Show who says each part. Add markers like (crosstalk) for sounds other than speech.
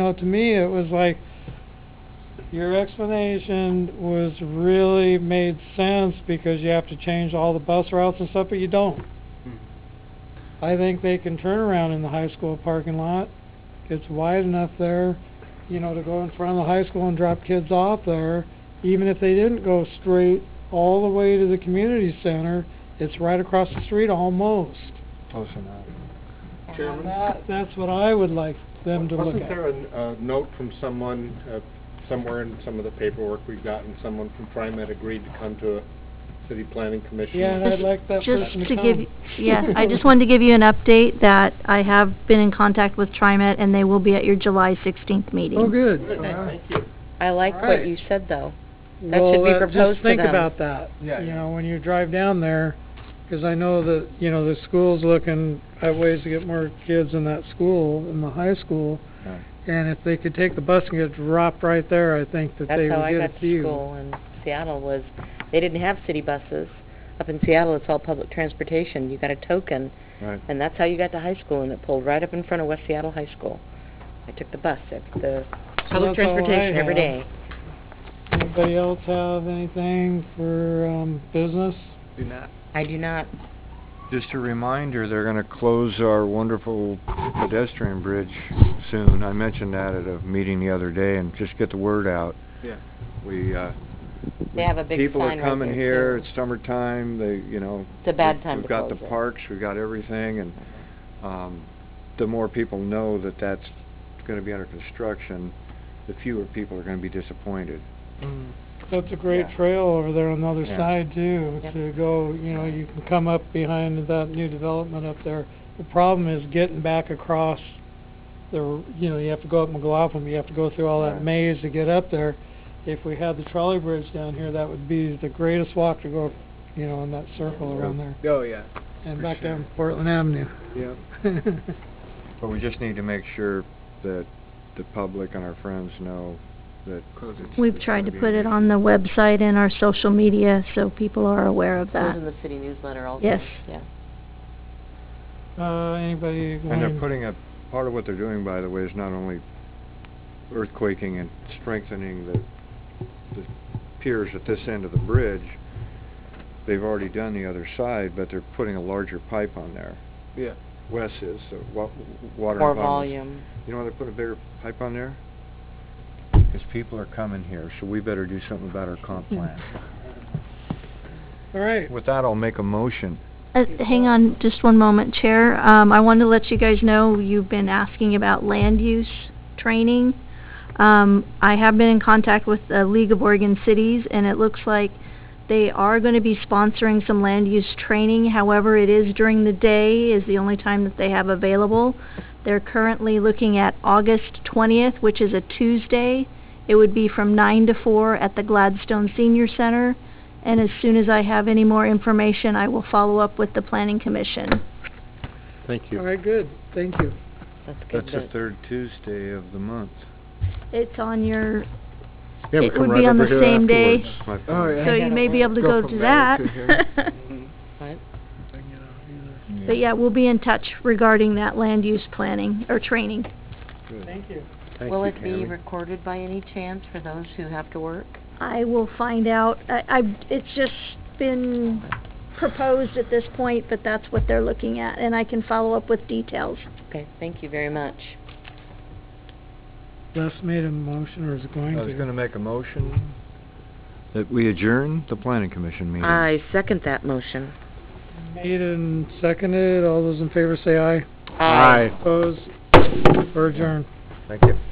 Speaker 1: know, to me, it was like, your explanation was really made sense because you have to change all the bus routes and stuff, but you don't. I think they can turn around in the high school parking lot. It's wide enough there, you know, to go in front of the high school and drop kids off there. Even if they didn't go straight all the way to the community center, it's right across the street almost.
Speaker 2: Close enough.
Speaker 3: Chairman?
Speaker 1: That, that's what I would like them to look
Speaker 3: Wasn't there
Speaker 1: at.
Speaker 3: a, n- a note from someone, uh, somewhere in some of the paperwork we've gotten, someone from TriMet agreed to come to a city planning commission?
Speaker 1: Yeah, and I'd like that
Speaker 4: Just
Speaker 1: person to
Speaker 4: to
Speaker 1: come.
Speaker 4: give, yeah, I just wanted to give you an update that I have been in contact with TriMet and they will be at your July sixteenth meeting.
Speaker 1: Oh,
Speaker 3: (laughs)
Speaker 1: good.
Speaker 3: Good, thank you.
Speaker 5: I like
Speaker 1: Alright.
Speaker 5: what you said, though. That
Speaker 1: Well,
Speaker 5: should be
Speaker 1: uh,
Speaker 5: proposed to
Speaker 1: Just think
Speaker 5: them.
Speaker 1: about that,
Speaker 2: Yeah,
Speaker 1: you
Speaker 2: yeah.
Speaker 1: know, when you drive down there, 'cause I know that, you know, the school's looking at ways to get more kids in that school, in the high school.
Speaker 2: Yeah.
Speaker 1: And if they could take the bus and get dropped right there, I think that
Speaker 5: That's
Speaker 1: they
Speaker 5: how
Speaker 1: would
Speaker 5: I
Speaker 1: get a
Speaker 5: got to
Speaker 1: few.
Speaker 5: school in Seattle was, they didn't have city buses. Up in Seattle, it's all public transportation. You got a token,
Speaker 2: Right.
Speaker 5: and that's how you got to high school, and it pulled right up in front of West Seattle High School. I took the bus, it's the public
Speaker 1: that's all I
Speaker 5: transportation every
Speaker 1: have.
Speaker 5: day.
Speaker 1: Anybody else have anything for, um, business?
Speaker 2: Do not.
Speaker 5: I do not,
Speaker 2: Just a reminder, they're gonna close our wonderful pedestrian bridge soon. I mentioned that at a meeting the other day, and just get the word out.
Speaker 3: Yeah.
Speaker 2: We, uh...
Speaker 5: They have a big
Speaker 2: People are
Speaker 5: sign right
Speaker 2: coming
Speaker 5: there,
Speaker 2: here,
Speaker 5: too.
Speaker 2: it's summertime, they, you know...
Speaker 5: It's a bad
Speaker 2: we-
Speaker 5: time to
Speaker 2: We've got
Speaker 5: close
Speaker 2: the
Speaker 5: it.
Speaker 2: parks, we've got everything, and, um, the more people know that that's gonna be under construction, the fewer people are gonna be disappointed.
Speaker 1: That's a great
Speaker 2: Yeah.
Speaker 1: trail over there on the other
Speaker 2: Yeah.
Speaker 1: side too,
Speaker 5: Yep.
Speaker 1: to go, you know, you can come up behind that new development up there. The problem is getting back across the, r- you know, you have to go up McLaughlin, you have to go through all that
Speaker 2: Right.
Speaker 1: maze to get up there. If we had the trolley bridge down here, that would be the greatest walk to go, you know, in that circle around there
Speaker 3: Oh, yeah,
Speaker 1: and
Speaker 2: for
Speaker 1: back
Speaker 2: sure.
Speaker 1: down Portland Avenue. (laughs)
Speaker 3: yeah. (laughs)
Speaker 2: But we just need to make sure that the public and our friends know that it's...
Speaker 4: We've
Speaker 2: it's
Speaker 4: tried to
Speaker 2: gonna be
Speaker 4: put
Speaker 2: an
Speaker 4: it
Speaker 2: issue.
Speaker 4: on the website and our social media so people are aware of
Speaker 5: It was in
Speaker 4: that.
Speaker 5: the city newsletter also.
Speaker 4: Yes.
Speaker 5: Yeah.
Speaker 1: Uh, anybody going?
Speaker 2: And they're putting a, part of what they're doing, by the way, is not only earthquaking and strengthening the, the piers at this end of the bridge, they've already done the other side, but they're putting a larger pipe on there.
Speaker 3: Yeah.
Speaker 2: Wes is, so wa- water.
Speaker 5: More
Speaker 2: and bottles.
Speaker 5: volume.
Speaker 2: You know why they put a bigger pipe on there? Because people are coming here, so we better do something about our comp
Speaker 5: Hmm.
Speaker 2: plan.
Speaker 1: All right.
Speaker 2: With that, I'll make a motion.
Speaker 4: Uh, hang on just one moment, Chair. Um, I wanted to let you guys know, you've been asking about land use training. Um, I have been in contact with the League of Oregon Cities and it looks like they are gonna be sponsoring some land use training. However, it is during the day is the only time that they have available. They're currently looking at August twentieth, which is a Tuesday. It would be from nine to four at the Gladstone Senior Center. And as soon as I have any more information, I will follow up with the planning commission.
Speaker 3: Thank
Speaker 1: All right, good. Thank you.
Speaker 5: That's good.
Speaker 2: That's the
Speaker 5: but-
Speaker 2: third Tuesday of the month.
Speaker 4: It's on your,
Speaker 3: Yeah, we
Speaker 4: it
Speaker 3: come
Speaker 4: would
Speaker 3: right
Speaker 4: be on
Speaker 3: over
Speaker 4: the
Speaker 3: here
Speaker 4: same day,
Speaker 2: That's my
Speaker 3: Oh,
Speaker 2: favorite.
Speaker 3: yeah.
Speaker 4: so
Speaker 5: I
Speaker 4: you
Speaker 5: gotta
Speaker 4: may be
Speaker 5: work.
Speaker 4: able to
Speaker 3: Go
Speaker 4: go
Speaker 3: from
Speaker 4: to
Speaker 3: there
Speaker 4: that.
Speaker 3: to here.
Speaker 5: What?
Speaker 4: (laughs) But yeah, we'll be in touch regarding that land use planning or training.
Speaker 2: Good.
Speaker 1: Thank you.
Speaker 2: Thank
Speaker 5: Will
Speaker 2: you,
Speaker 5: it be
Speaker 2: Tammy.
Speaker 5: recorded by any chance for those who have to work?
Speaker 4: I will find out. I, I, it's just been proposed at this point, but that's what they're looking at and I can follow up with details.
Speaker 5: Okay, thank you very much.
Speaker 1: Les made a motion or is going to?
Speaker 2: I was gonna make a motion that we adjourn the planning commission meeting.
Speaker 5: I second that motion.
Speaker 1: Made and seconded, all those in favor say aye.
Speaker 5: Aye.
Speaker 1: Opposed, or adjourned.
Speaker 2: Thank you.